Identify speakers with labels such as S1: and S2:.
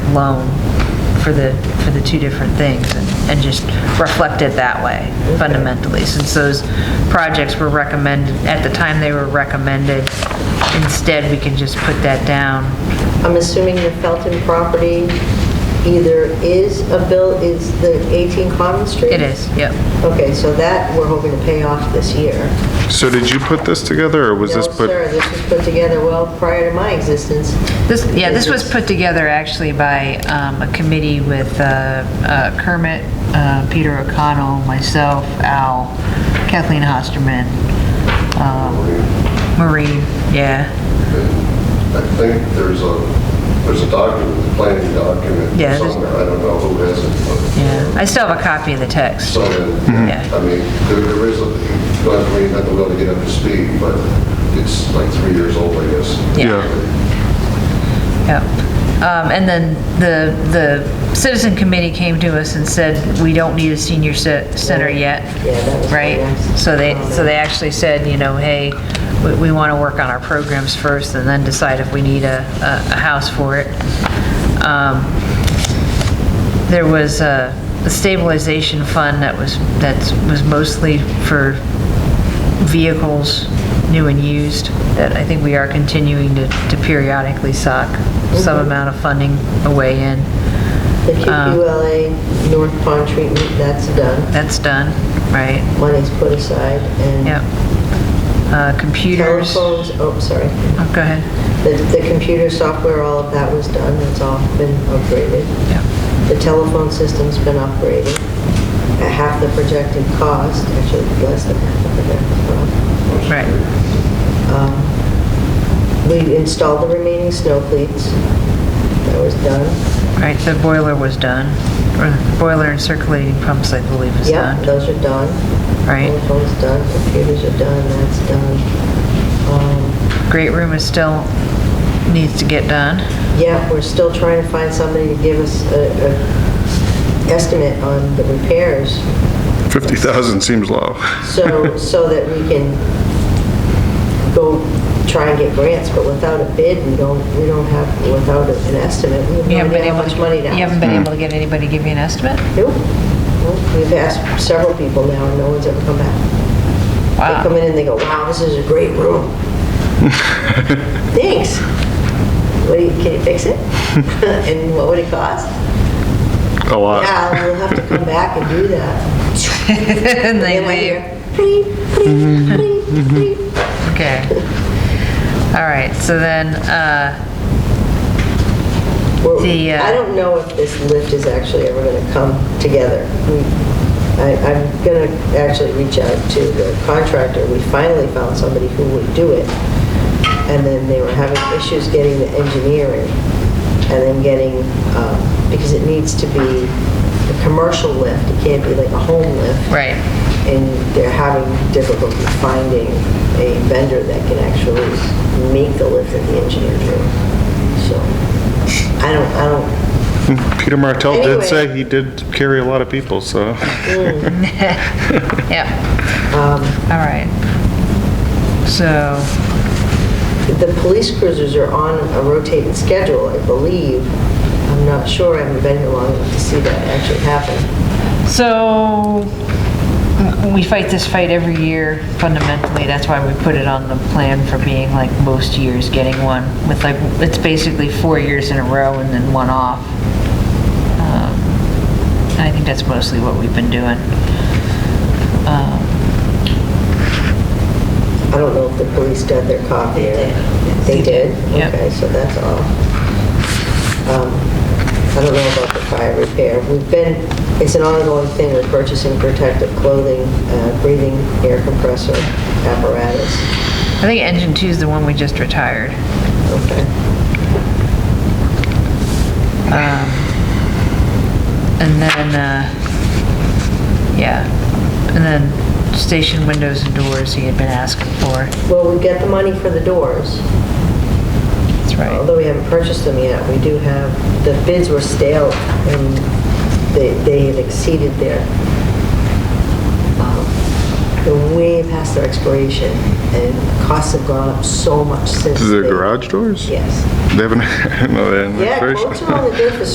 S1: loan for the, for the two different things and and just reflect it that way fundamentally. Since those projects were recommended, at the time they were recommended, instead we can just put that down.
S2: I'm assuming the Felton property either is a bill, is the 18 Common Street?
S1: It is, yep.
S2: Okay, so that we're hoping to pay off this year.
S3: So did you put this together, or was this
S2: No,
S3: put?
S2: sir, this was put together well prior to my existence.
S1: This, yeah, this was put together actually by um, a committee with uh, uh, Kermit, uh, Peter O'Connell, myself, Al, Kathleen Hosterman, um, Marie, yeah,
S4: I think there's a, there's a document, a planning document
S1: Yeah, there's-
S4: somewhere, I don't know who has it,
S1: yeah. I still have a copy of the
S4: but
S1: text.
S4: something,
S1: Yeah.
S4: I mean, there there is, a- you don't have to read, not to be able to get up to speed, but it's like three years old, I guess.
S1: Yeah. Yep. Um, And then the, the citizen committee came to us and said, we don't need a senior ce- center yet.
S2: Yeah, that was my
S1: Right?
S2: next
S1: So they, so they
S2: comment.
S1: actually said, you know, hey, we, we want to work on our programs first and then decide if we need a, a a house for it. Um, There was a a stabilization fund that was, that was mostly for vehicles, new and used, that I think we are continuing to to periodically sock some amount of funding away in. Oh.
S2: The QQLA North Pond treatment, that's done.
S1: That's done, right?
S2: Money's put aside and.
S1: Yep. Uh, Computers, oh,
S2: Telephones, oh, sorry.
S1: go ahead.
S2: The, the computer software, all of that was done, it's all been upgraded.
S1: Yep.
S2: The telephone system's been upgraded at half the projected cost, actually less than half the projected cost.
S1: Right,
S2: Um, We installed the remaining snow cleats, that was done.
S1: right, the boiler was done, or boiler and circulating pumps, I believe, is
S2: Yeah,
S1: done.
S2: those are done.
S1: Right.
S2: Telephone's done, computers are done, that's done. Um,
S1: Great room is still, needs to get done.
S2: Yeah, we're still trying to find somebody to give us a, a estimate on the repairs
S3: 50,000 seems low.
S2: So, so that we can go try and get grants, but without a bid, we don't, we don't have, without an estimate, we
S1: You haven't
S2: have no
S1: been
S2: idea how
S1: able
S2: much
S1: to,
S2: money to
S1: you haven't
S2: ask.
S1: been able to get anybody to give you an estimate?
S2: Nope. Nope. We've asked several people now, and no one's ever come back. They come in and they go, wow, this is a great room. Thanks. What do you, can you fix it? And what would it cost?
S3: A lot.
S2: Yeah, we'll have to come back and do that.
S1: And they
S2: Then I hear,
S1: leave,
S2: "Pleep, pleep, pleep, pleep."
S1: okay. All right, so then, uh,
S2: Well,
S1: The, uh,
S2: I don't know if this lift is actually ever going to come together. We- I- I'm going to actually reach out to the contractor. We finally found somebody who would do it, and then they were having issues getting the engineering, and then getting, um, because it needs to be a commercial lift, it can't be like a home lift.
S1: Right.
S2: And they're having difficulty finding a vendor that can actually make the lift that the engineer drew. So I don't, I don't,
S3: Peter Martell did
S2: Anyway. Mm.
S3: say he did carry a lot of people, so.
S1: yeah. All right. So,
S2: the police cruisers are on a rotating schedule, I believe. I'm not sure, I haven't been here long enough to see that actually happen.
S1: so we fight this fight every year fundamentally. That's why we put it on the plan for being like most years getting one with like, it's basically four years in a row and then one off. Um, And I think that's mostly what we've been doing. Um,
S2: I don't know if the police got their copy. They did. They did?
S1: Yep.
S2: Okay, so that's all. Um, I don't know about the fire repair. We've been, it's an ongoing thing, we're purchasing protective clothing, uh, breathing air compressor apparatus.
S1: I think engine two is the one we just retired.
S2: Okay.
S1: Um, And then, uh, yeah, and then station windows and doors he had been asking for.
S2: Well, we get the money for the doors,
S1: That's right.
S2: although we haven't purchased them yet. We do have, the bids were stale and they, they had exceeded their, um, they're way past their expiration and costs have gone up so much since.
S3: The
S2: they-
S3: garage doors?
S2: Yes.
S3: They haven't, no, they haven't.
S2: Yeah,
S3: finished.
S2: quotes are only good for